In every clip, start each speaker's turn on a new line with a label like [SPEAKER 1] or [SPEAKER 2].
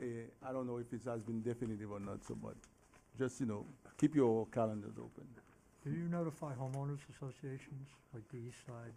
[SPEAKER 1] Uh, I don't know if it has been definitive or not, so, but just, you know, keep your calendars open.
[SPEAKER 2] Do you notify homeowners associations, like the east side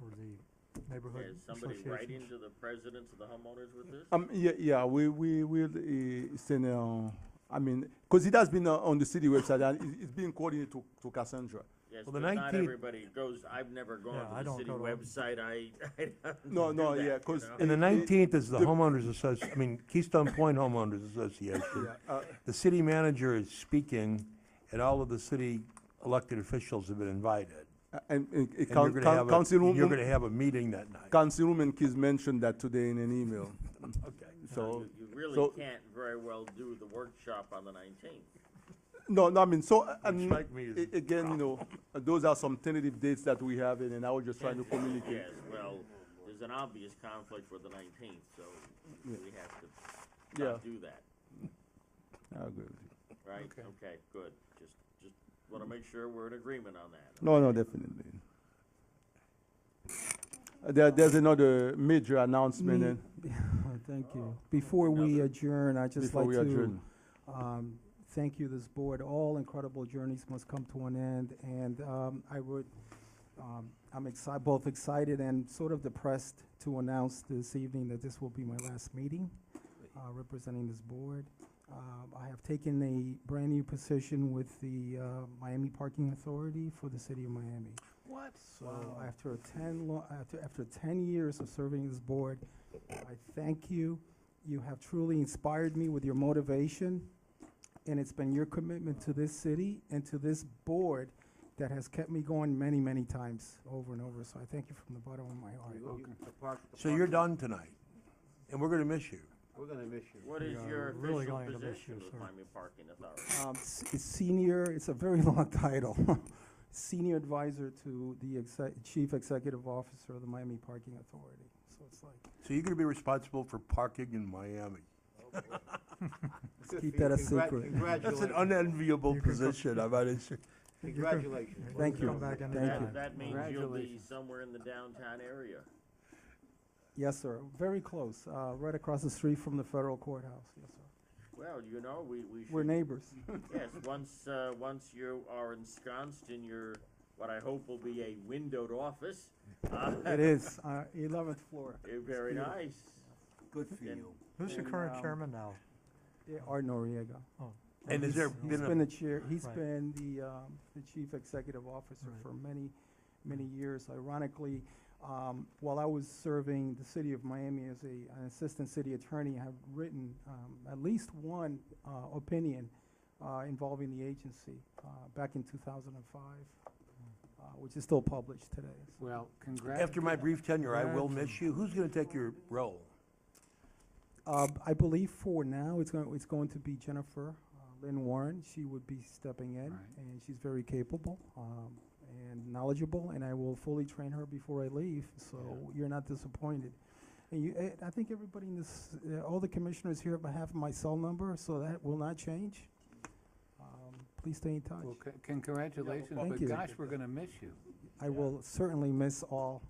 [SPEAKER 2] or the neighborhood
[SPEAKER 3] Is somebody writing
[SPEAKER 2] associations?
[SPEAKER 3] to the presidents of the homeowners with this?
[SPEAKER 1] Um, yeah, yeah, we, we will uh, send, uh, I mean, because it has been uh, on the city website and it- it's being coordinated to, to Cassandra.
[SPEAKER 3] Yes,
[SPEAKER 4] Well,
[SPEAKER 3] but
[SPEAKER 4] the
[SPEAKER 3] not
[SPEAKER 4] 19th
[SPEAKER 3] everybody goes, I've never
[SPEAKER 2] Yeah, I
[SPEAKER 3] gone to the
[SPEAKER 2] don't
[SPEAKER 3] city
[SPEAKER 2] go to them.
[SPEAKER 3] website, I, I don't do
[SPEAKER 1] No, no,
[SPEAKER 3] that,
[SPEAKER 1] yeah,
[SPEAKER 3] you
[SPEAKER 1] 'cause
[SPEAKER 3] know?
[SPEAKER 1] it-
[SPEAKER 4] And the nineteenth is the
[SPEAKER 1] the-
[SPEAKER 4] homeowners associ, I mean Keystone Point Homeowners Association.
[SPEAKER 1] Uh,
[SPEAKER 4] The city manager is speaking and all of the city elected officials have been invited.
[SPEAKER 1] and, and, uh,
[SPEAKER 4] And
[SPEAKER 1] coun-
[SPEAKER 4] you're
[SPEAKER 1] coun-
[SPEAKER 4] gonna have a-
[SPEAKER 1] Councilwoman-
[SPEAKER 4] You're gonna have a meeting that night.
[SPEAKER 1] Councilwoman Keys mentioned that today in an email,
[SPEAKER 4] Okay.
[SPEAKER 1] so.
[SPEAKER 3] You- You really
[SPEAKER 1] so-
[SPEAKER 3] can't very well do the workshop on the nineteenth.
[SPEAKER 1] No, no, I mean, so, uh,
[SPEAKER 4] Would
[SPEAKER 1] um,
[SPEAKER 4] strike me as
[SPEAKER 1] a- again, you know, uh, those are some tentative dates that we have, and and I was just trying to communicate.
[SPEAKER 3] Yes, well, there's an obvious conflict with the nineteenth, so we have to
[SPEAKER 1] Yeah. Ah,
[SPEAKER 3] not do that,
[SPEAKER 1] I agree with you.
[SPEAKER 3] right? Okay, good, just, just wanna make sure we're in agreement on that.
[SPEAKER 1] No, no, definitely. Uh, There, there's another major announcement, eh, and
[SPEAKER 5] Thank you. Before we
[SPEAKER 3] Another-
[SPEAKER 5] adjourn, I'd just
[SPEAKER 1] before
[SPEAKER 5] like
[SPEAKER 1] we
[SPEAKER 5] to,
[SPEAKER 1] adjourn.
[SPEAKER 5] um, thank you, this board. All incredible journeys must come to an end, and, um, I would, um, I'm exci- both excited and sort of depressed to announce this evening that this will be my last meeting, uh, representing this board. Um, I have taken a brand-new position with the, uh, Miami Parking Authority for the city of Miami.
[SPEAKER 4] What?
[SPEAKER 5] So after a ten lo- after after ten years of serving this board, I thank you. You have truly inspired me with your motivation, and it's been your commitment to this city and to this board that has kept me going many, many times over and over. So I thank you from the bottom of my heart.
[SPEAKER 4] So you're done tonight, and we're gonna miss you.
[SPEAKER 6] We're gonna miss you.
[SPEAKER 3] What is
[SPEAKER 2] Yeah,
[SPEAKER 3] your
[SPEAKER 2] we're really
[SPEAKER 3] official
[SPEAKER 2] going to miss you,
[SPEAKER 3] position with
[SPEAKER 2] sir.
[SPEAKER 3] Miami Parking Authority?
[SPEAKER 5] Um, s- it's senior. It's a very long title. senior advisor to the exec- chief executive officer of the Miami Parking Authority. So it's like.
[SPEAKER 4] So you're gonna be responsible for parking in Miami.
[SPEAKER 6] Good
[SPEAKER 5] keep
[SPEAKER 6] for you.
[SPEAKER 5] that a
[SPEAKER 6] Congrat-
[SPEAKER 5] secret.
[SPEAKER 4] That's an
[SPEAKER 6] Congratulations,
[SPEAKER 4] unenviable
[SPEAKER 2] You can come-
[SPEAKER 4] position, I might say.
[SPEAKER 6] congratulations.
[SPEAKER 5] Thank you.
[SPEAKER 2] Come back in the
[SPEAKER 5] Thank
[SPEAKER 3] That-
[SPEAKER 5] you.
[SPEAKER 3] That means you'll be
[SPEAKER 6] Congratulations.
[SPEAKER 3] somewhere in the downtown area.
[SPEAKER 5] Yes, sir. Very close, uh, right across the street from the federal courthouse. Yes, sir.
[SPEAKER 3] Well, you know, we, we should.
[SPEAKER 5] We're neighbors.
[SPEAKER 3] Yes, once, uh, once you are ensconced in your, what I hope will be a windowed office. uh,
[SPEAKER 5] It is, uh, 11th floor.
[SPEAKER 3] eh, Very
[SPEAKER 5] beautiful.
[SPEAKER 3] nice.
[SPEAKER 6] Good for
[SPEAKER 3] And-
[SPEAKER 6] you.
[SPEAKER 2] Who's the
[SPEAKER 5] And,
[SPEAKER 2] current
[SPEAKER 5] um,
[SPEAKER 2] chairman now?
[SPEAKER 5] Yeah, Art Noriega.
[SPEAKER 4] And has there
[SPEAKER 2] He's-
[SPEAKER 5] He's
[SPEAKER 4] been
[SPEAKER 5] been
[SPEAKER 4] a,
[SPEAKER 5] the chair, he's
[SPEAKER 2] Right.
[SPEAKER 5] been the, um, the chief executive officer
[SPEAKER 2] Right.
[SPEAKER 5] for many, many years. Ironically, um, while I was serving the city of Miami as a, an assistant city attorney, I've written, um, at least one, uh, opinion, uh, involving the agency, uh, back in two thousand and
[SPEAKER 2] Mm.
[SPEAKER 5] five, uh, which is still published today. So
[SPEAKER 6] Well, congrats.
[SPEAKER 4] after my brief tenure, I will miss you. Who's gonna take your role?
[SPEAKER 5] Uh, I believe for now, it's going, it's going to be Jennifer uh, Lynn Warren. She would be stepping in,
[SPEAKER 6] Right.
[SPEAKER 5] and she's very capable um, and knowledgeable, and I will fully train her before I leave, so you're not disappointed. And you, eh, I think everybody in this, eh, all the commissioners here have my cell number, so that will not change. Um, Please stay in touch.
[SPEAKER 6] Well, c- Congratulations,
[SPEAKER 5] Thank
[SPEAKER 6] but
[SPEAKER 5] you.
[SPEAKER 6] gosh, we're gonna miss you.
[SPEAKER 5] I will certainly miss all,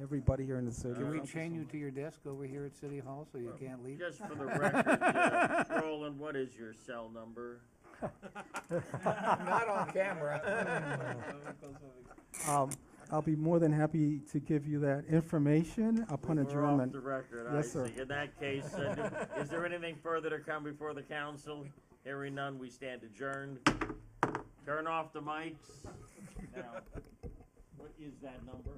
[SPEAKER 5] everybody here in the city.
[SPEAKER 6] Can we
[SPEAKER 3] Thank you
[SPEAKER 6] chain you to your desk over here at City Hall so you can't leave?
[SPEAKER 3] Just for the record, uh, Roland, what is your cell number?
[SPEAKER 6] Not on camera.
[SPEAKER 5] Um, I'll be more than happy to give you that information upon
[SPEAKER 3] We're off
[SPEAKER 5] adjournment.
[SPEAKER 3] the record, I
[SPEAKER 5] Yes, sir.
[SPEAKER 3] see. In that case, uh, do- is there anything further to come before the council? Hearing none, we stand adjourned. Turn off the mics. Now, what is that number?